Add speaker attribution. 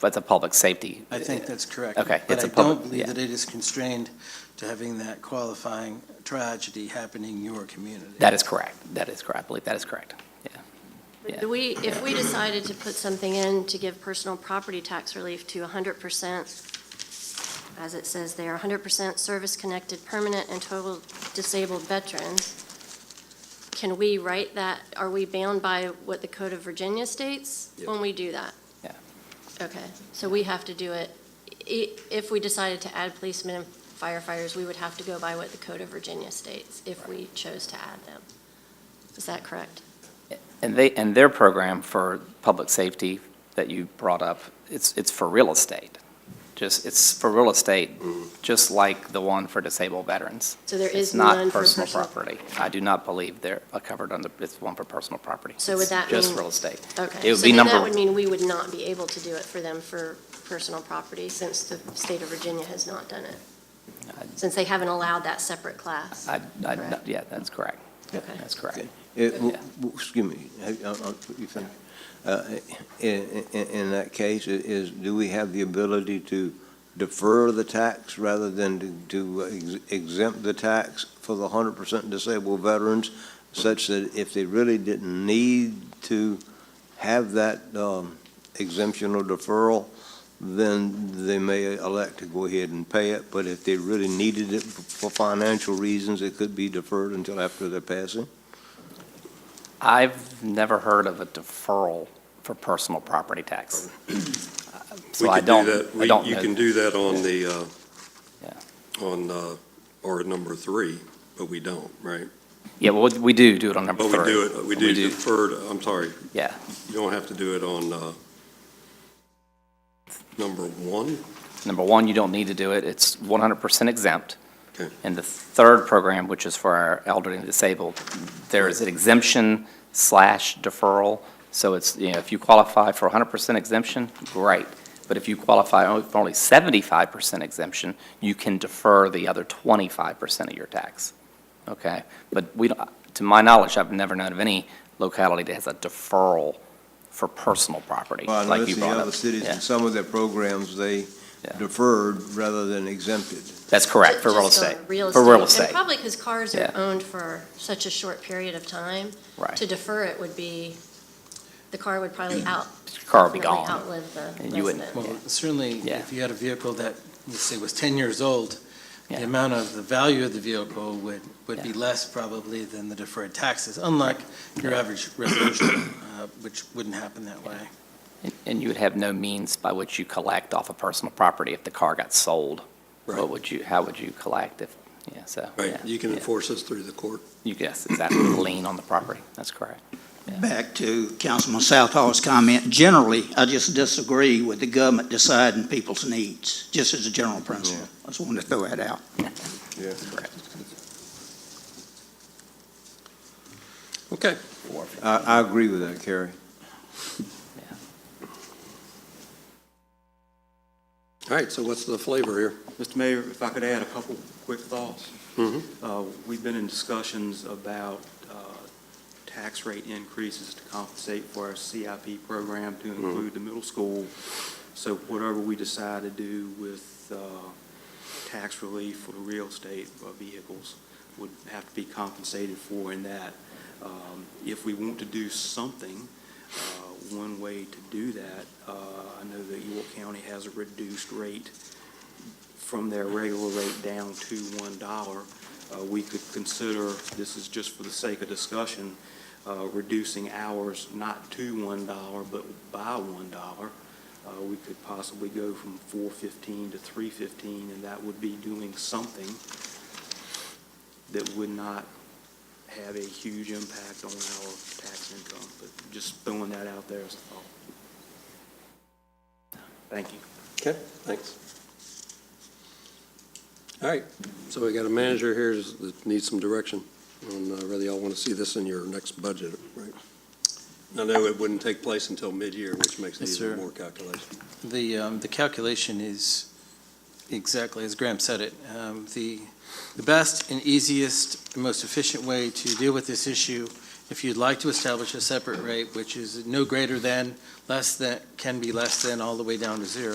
Speaker 1: that's a public safety.
Speaker 2: I think that's correct.
Speaker 1: Okay,
Speaker 2: But
Speaker 1: it's
Speaker 2: I
Speaker 1: a public-
Speaker 2: don't
Speaker 1: yeah.
Speaker 2: believe that it is constrained to having that qualifying tragedy happening in your community.
Speaker 1: That is correct. That is correct. I believe that is correct. Yeah.
Speaker 3: Do we, if we decided to put something in to give personal property tax relief to hundred percent, as it says there, hundred percent service-connected, permanent, and total disabled veterans, can we write that, are we bound by what the Code of Virginia states when we do that?
Speaker 1: Yeah.
Speaker 3: Okay, so we have to do it, i- if we decided to add policemen and firefighters, we would have to go by what the Code of Virginia states if we chose to add them. Is that correct?
Speaker 1: And they, and their program for public safety that you brought up, it's, it's for real estate. Just, it's for real estate, just like the one for disabled veterans.
Speaker 3: So there
Speaker 1: It's
Speaker 3: is
Speaker 1: not
Speaker 3: none for
Speaker 1: personal
Speaker 3: personal-
Speaker 1: property. I do not believe they're uh, covered under, it's one for personal property.
Speaker 3: So would
Speaker 1: It's
Speaker 3: that
Speaker 1: Just
Speaker 3: mean-
Speaker 1: real estate.
Speaker 3: Okay.
Speaker 1: It would be
Speaker 3: So then
Speaker 1: number,
Speaker 3: that would mean we would not be able to do it for them for personal property, since the state of Virginia has not done it, since they haven't allowed that separate class.
Speaker 1: I, I,
Speaker 3: Correct.
Speaker 1: yeah, that's correct.
Speaker 3: Okay.
Speaker 1: That's correct.
Speaker 4: It- w- w- Excuse me, I- I- I'll put you finish. Uh, In in- in that case, i- is, do we have the ability to defer the tax rather than to- to ex- exempt the tax for the 100% disabled veterans, such that if they really didn't need to have that um, exemption or deferral, then they may elect to go ahead and pay it, but if they really needed it f- for financial reasons, it could be deferred until after their passing?
Speaker 1: I've never heard of a deferral for personal property tax. So
Speaker 5: We
Speaker 1: I
Speaker 5: could do
Speaker 1: don't,
Speaker 5: that.
Speaker 1: I
Speaker 5: We-
Speaker 1: don't
Speaker 5: You
Speaker 1: know.
Speaker 5: can do that on the, uh,
Speaker 1: Yeah.
Speaker 5: on, uh, or number three, but we don't, right?
Speaker 1: Yeah, well, we do do it on number
Speaker 5: But
Speaker 1: three.
Speaker 5: we do it, we do defer, to- I'm sorry,
Speaker 1: Yeah,
Speaker 5: you don't have to do it on uh, number one?
Speaker 1: number one, you don't need to do it, it's 100% exempt.
Speaker 5: Okay.
Speaker 1: And the third program, which is for our elderly and disabled, there is an exemption slash deferral. So it's, you know, if you qualify for 100% exemption, great. But if you qualify only- for only 75% exemption, you can defer the other 25% of your tax. Okay? But we, don't- to my knowledge, I've never known of any locality that has a deferral for personal property,
Speaker 4: Well, I
Speaker 1: like you
Speaker 4: noticed in
Speaker 1: brought up.
Speaker 4: other cities,
Speaker 1: Yeah.
Speaker 4: in some of their programs, they
Speaker 1: Yeah.
Speaker 4: deferred rather than exempted.
Speaker 1: That's correct, for
Speaker 3: Just
Speaker 1: real
Speaker 3: on
Speaker 1: estate.
Speaker 3: Real
Speaker 1: For real
Speaker 3: estate, and
Speaker 1: estate,
Speaker 3: probably because cars are
Speaker 1: Yeah.
Speaker 3: owned for such a short period of time. To
Speaker 1: right.
Speaker 3: defer it would be, the car would probably out,
Speaker 1: Car will be
Speaker 3: definitely
Speaker 1: gone.
Speaker 3: outlive the
Speaker 1: And you wouldn't-
Speaker 3: resident.
Speaker 2: Well, certainly,
Speaker 1: Yeah.
Speaker 2: if you had a vehicle that, let's say, was 10 years old,
Speaker 1: Yeah.
Speaker 2: the amount of the value of the vehicle would, would be
Speaker 1: Yeah.
Speaker 2: less probably than the deferred taxes, unlike your average resolution, uh, which wouldn't happen that way.
Speaker 1: And- And you would have no means by which you collect off a personal property if the car got sold. What
Speaker 5: Right.
Speaker 1: would you, how would you collect if, yeah, so.
Speaker 5: Right,
Speaker 1: yeah,
Speaker 5: you can
Speaker 1: yeah.
Speaker 5: enforce this through the court.
Speaker 1: You guess, exactly, lien on the property, that's correct.
Speaker 6: Back to Councilman Southall's comment, generally, I just disagree with the government deciding people's needs, just as a general principle. I just wanted to throw that out.
Speaker 4: Yeah.
Speaker 5: Okay.
Speaker 4: I, I agree with that, Carrie.
Speaker 5: All right, so what's the flavor here?
Speaker 7: Mr. Mayor, if I could add a couple quick thoughts.
Speaker 5: Mhm.
Speaker 7: Uh, We've been in discussions about uh, tax rate increases to compensate for our CIP program to include the middle school. So whatever we decide to do with uh, tax relief for the real estate uh, vehicles would have to be compensated for in that. Um, If we want to do something, uh, one way to do that, uh, I know that York County has a reduced rate from their regular rate down to one dollar, uh, we could consider, this is just for the sake of discussion, uh, reducing hours not to one dollar, but by one dollar. Uh, we could possibly go from four fifteen to three fifteen, and that would be doing something that would not have a huge impact on our tax income, but just throwing that out there as a thought. Thank you.
Speaker 5: Okay, thanks. All right, so we got a manager here that needs some direction on uh, whether y'all want to see this in your next budget, right? I know it wouldn't take place until mid-year, which makes it
Speaker 2: Yes,
Speaker 5: even
Speaker 2: sir.
Speaker 5: more calculation.
Speaker 2: The, um, the calculation is exactly as Graham said it. Um, The, the best and easiest, and most efficient way to deal with this issue If you'd like to establish a separate rate, which is no greater than, less than, can be less than, all the way down to zero,